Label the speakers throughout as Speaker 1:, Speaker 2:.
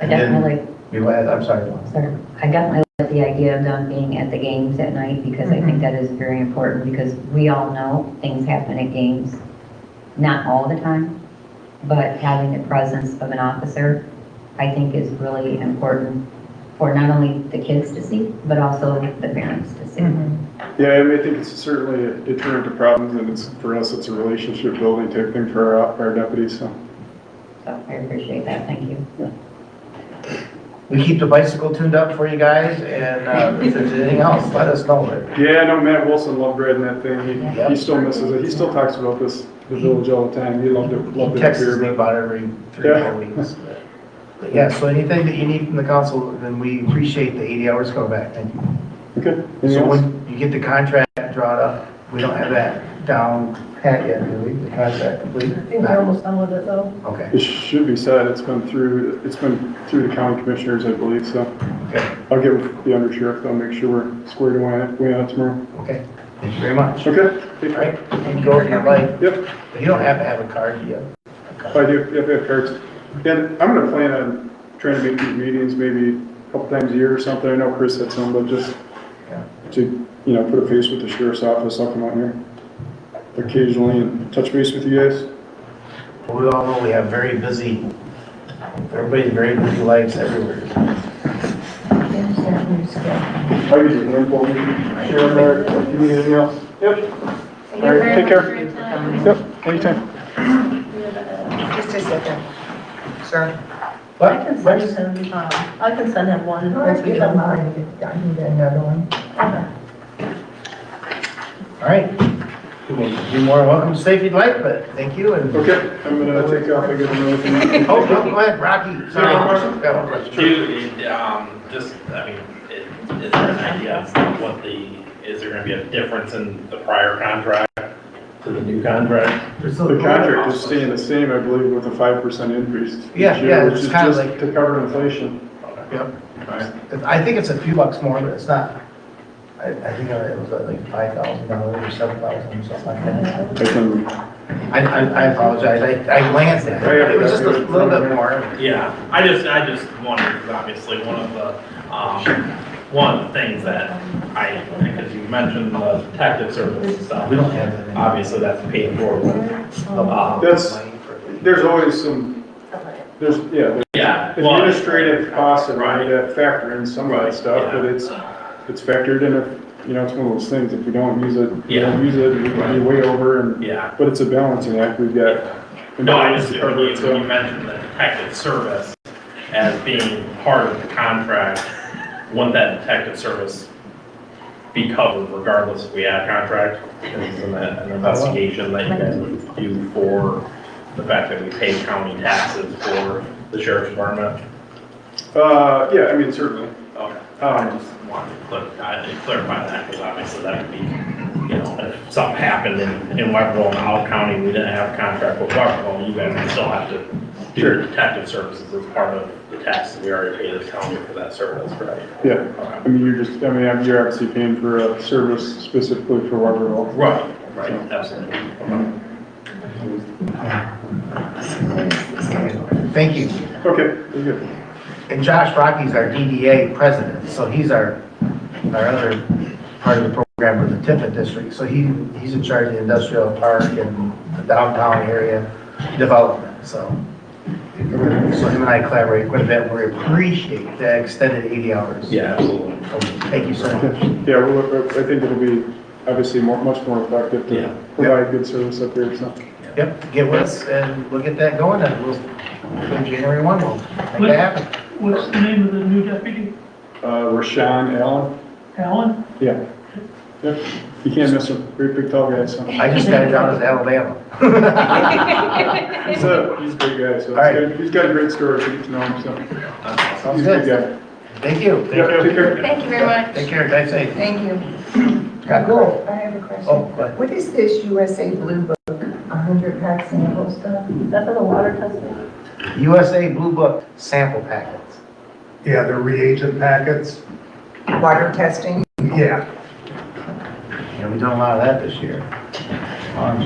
Speaker 1: I
Speaker 2: And then-
Speaker 1: definitely,
Speaker 2: Your last, I'm sorry, Dawn.
Speaker 1: sorry, I definitely like the idea of them being at the games at night because I think that is very important because we all know things happen at games. Not all the time, but having the presence of an officer, I think is really important for not only the kids to see, but also the parents to see.
Speaker 3: Yeah, I mean, I think it's certainly a deterrent to problems, and it's, for us, it's a relationship building type thing for our, our deputies, so.
Speaker 1: So I appreciate that, thank you.
Speaker 2: We keep the bicycle tuned up for you guys, and uh, if there's anything else, let us know.
Speaker 3: Yeah, I know Matt Wilson loved riding that thing, he,
Speaker 2: Yeah.
Speaker 3: he still misses it, he still talks about this, the village all the time, he loved it,
Speaker 2: He
Speaker 3: loved it up
Speaker 2: texts me
Speaker 3: here, but.
Speaker 2: about every three, or four weeks. But Yeah, so anything that you need from the council, then we appreciate the 80 hours coming back. Thank you.
Speaker 3: Okay,
Speaker 2: So
Speaker 3: anything else?
Speaker 2: when you get the contract drawn up, we don't have that down pat yet, do we? The contract complete?
Speaker 4: I think we're almost done with it though.
Speaker 2: Okay,
Speaker 3: It should be said, it's been through, it's been through the county commissioners, I believe, so.
Speaker 2: Okay.
Speaker 3: I'll get with the under sheriff, I'll make sure we're squared away, way out tomorrow.
Speaker 2: okay. Thank you very much.
Speaker 3: Okay?
Speaker 2: All right, and go over your life.
Speaker 3: Yep.
Speaker 2: You don't have to have a card yet.
Speaker 3: I do, if I have cards. And I'm gonna plan on trying to make these meetings maybe a couple times a year or something. I know Chris had some, but just
Speaker 2: Yeah.
Speaker 3: to, you know, put a face with the sheriff's office, I'll come out here occasionally and touch base with you guys.
Speaker 2: We all know we have very busy, everybody's very busy lives everywhere.
Speaker 3: I can do one for me. Sheriff, Eric, if you need anything else. Yep. All right, take care. Yep, anytime.
Speaker 5: Just a second. Sir?
Speaker 4: I
Speaker 2: But,
Speaker 4: can send him, um, I can send him one. once we get mine.
Speaker 5: I need another one.
Speaker 2: all right. You're more than welcome to stay if you'd like, but thank you and, oh,
Speaker 3: Okay, I'm gonna Oh, take off. I got another thing.
Speaker 2: no, go ahead, Rocky. Sorry,
Speaker 6: No.
Speaker 2: Got one question.
Speaker 6: Two, it, um, just, I mean, it- is there an idea of what the, is there gonna be a difference in the prior contract to the new contract?
Speaker 3: The contract is staying the same, I believe, with a five percent increase. each
Speaker 2: Yeah,
Speaker 3: year,
Speaker 2: yeah,
Speaker 3: which
Speaker 2: it's
Speaker 3: is
Speaker 2: kinda
Speaker 3: just
Speaker 2: like-
Speaker 3: To cover inflation.
Speaker 2: Yep. I think it's a few bucks more, but it's not, I, I think it was like five thousand dollars or seven thousand, something like that.
Speaker 3: I can,
Speaker 2: I, I, I apologize, I, I glanced at it, it was just a little bit more.
Speaker 6: Yeah, I just, I just wondered, 'cause obviously, one of the, um, one of the things that I, because you mentioned the detective service and stuff,
Speaker 2: We don't have that. many.
Speaker 6: obviously, that's paid for with, um,
Speaker 3: That's- there's always some, there's, yeah,
Speaker 6: yeah.
Speaker 3: there's
Speaker 6: well,
Speaker 3: administrative costs and
Speaker 6: Right.
Speaker 3: all that factor in some of that
Speaker 6: Right,
Speaker 3: stuff,
Speaker 6: yeah.
Speaker 3: but it's, it's factored in if, you know, it's one of those things, if we don't use it, we
Speaker 6: Yeah.
Speaker 3: don't use it, we could be way over and,
Speaker 6: Yeah.
Speaker 3: but it's a balancing act, we've got.
Speaker 6: No, I just, when
Speaker 3: Cover it,
Speaker 6: you, when you
Speaker 3: so-
Speaker 6: mentioned the detective service as being part of the contract, wouldn't that detective service be covered regardless if we had a contract? Isn't that an investigation that you guys would do for the fact that we pay county taxes for the sheriff's department?
Speaker 3: Uh, yeah, I mean, certainly,
Speaker 6: Okay, Oh, I
Speaker 3: um,
Speaker 6: just wanted to clar- I did clarify that, because obviously that would be, you know, if something happened in, in Weberville and Howell County, we didn't have a contract with Weberville, you guys would still have to do your detective services as part of the tax that we already pay the county for that service, right?
Speaker 3: yeah,
Speaker 6: Okay.
Speaker 3: I mean, you're just, I mean, you're obviously paying for a service specifically for Waterville.
Speaker 6: Right, right, absolutely.
Speaker 2: Thank you.
Speaker 3: Okay, very good.
Speaker 2: And Josh Rocky's our DDA president, so he's our, our other part of the program for the Tiffin district. So he, he's in charge of the industrial park and the downtown area development, so. So him and I collaborate quite a bit, we appreciate the extended 80 hours.
Speaker 6: Yeah, absolutely.
Speaker 2: Thank you so much.
Speaker 3: Yeah, well, I think it'll be obviously more, much more effective
Speaker 6: Yeah.
Speaker 3: to provide good service up here, so.
Speaker 2: Yep, get with us and we'll get that going and we'll, on January 1, we'll make that happen.
Speaker 7: What's the name of the new deputy?
Speaker 3: Uh, Rashawn Allen,
Speaker 7: Alan?
Speaker 3: yeah. Yep, you can't miss him, great big tall guy, so.
Speaker 2: I just got down as Alabama.
Speaker 3: He's a, he's a great guy, so.
Speaker 2: All right.
Speaker 3: he's got- He's got a great story, you to know him, so.
Speaker 2: Sounds
Speaker 3: He's a good
Speaker 2: good.
Speaker 3: guy.
Speaker 2: Thank you.
Speaker 3: Yeah, take care.
Speaker 5: Thank you very much.
Speaker 2: Take care, guys, safe.
Speaker 5: Thank you.
Speaker 2: Got
Speaker 5: Go, I have a
Speaker 2: Oh,
Speaker 5: question.
Speaker 2: go ahead.
Speaker 5: What is this USA Blue Book, a hundred pack sample stuff?
Speaker 4: That's for the water testing.
Speaker 2: USA Blue Book sample packets.
Speaker 8: Yeah, they're reagent packets.
Speaker 5: Water testing?
Speaker 8: Yeah,
Speaker 2: Yeah, we done a lot of that this year. Um,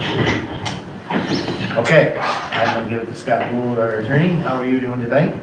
Speaker 2: Okay, I'm gonna give it to Scott Gould, our attorney. How are you doing tonight?